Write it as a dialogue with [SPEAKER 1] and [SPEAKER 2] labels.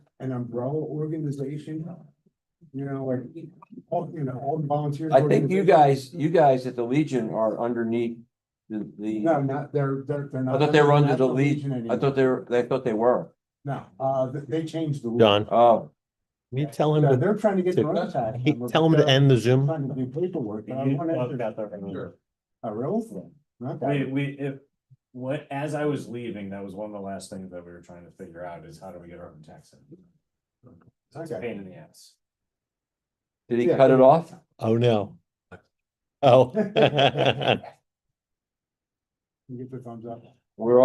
[SPEAKER 1] an umbrella organization? You know, like, all, you know, all the volunteers.
[SPEAKER 2] I think you guys, you guys at the Legion are underneath the,
[SPEAKER 1] No,
[SPEAKER 2] the,
[SPEAKER 1] not, they're, they're, they're not.
[SPEAKER 2] I thought they were under the
[SPEAKER 1] not
[SPEAKER 2] Legion. I
[SPEAKER 1] anymore.
[SPEAKER 2] thought they were, they thought they were.
[SPEAKER 1] No, uh, they, they changed the. rule.
[SPEAKER 3] John,
[SPEAKER 2] Oh,
[SPEAKER 3] can you tell him
[SPEAKER 1] Yeah,
[SPEAKER 3] to,
[SPEAKER 1] They're trying to get
[SPEAKER 3] to-
[SPEAKER 1] their own tax.
[SPEAKER 3] he-
[SPEAKER 1] number,
[SPEAKER 3] tell him
[SPEAKER 1] but
[SPEAKER 3] to end the
[SPEAKER 1] they're
[SPEAKER 3] Zoom?
[SPEAKER 1] Trying to do paperwork, but I
[SPEAKER 4] You
[SPEAKER 1] wanna
[SPEAKER 4] talked
[SPEAKER 1] answer-
[SPEAKER 4] about that for a minute.
[SPEAKER 1] a real thing, not
[SPEAKER 4] We,
[SPEAKER 1] that.
[SPEAKER 4] we, if, what, as I was leaving, that was one of the last things that we were trying to figure out is how do we get our own tax in? It's a
[SPEAKER 1] Okay.
[SPEAKER 4] pain in the ass.
[SPEAKER 2] did he
[SPEAKER 1] Yeah.
[SPEAKER 2] cut it off?
[SPEAKER 3] Oh, no. Oh.
[SPEAKER 1] You Get the thumbs up.
[SPEAKER 2] We're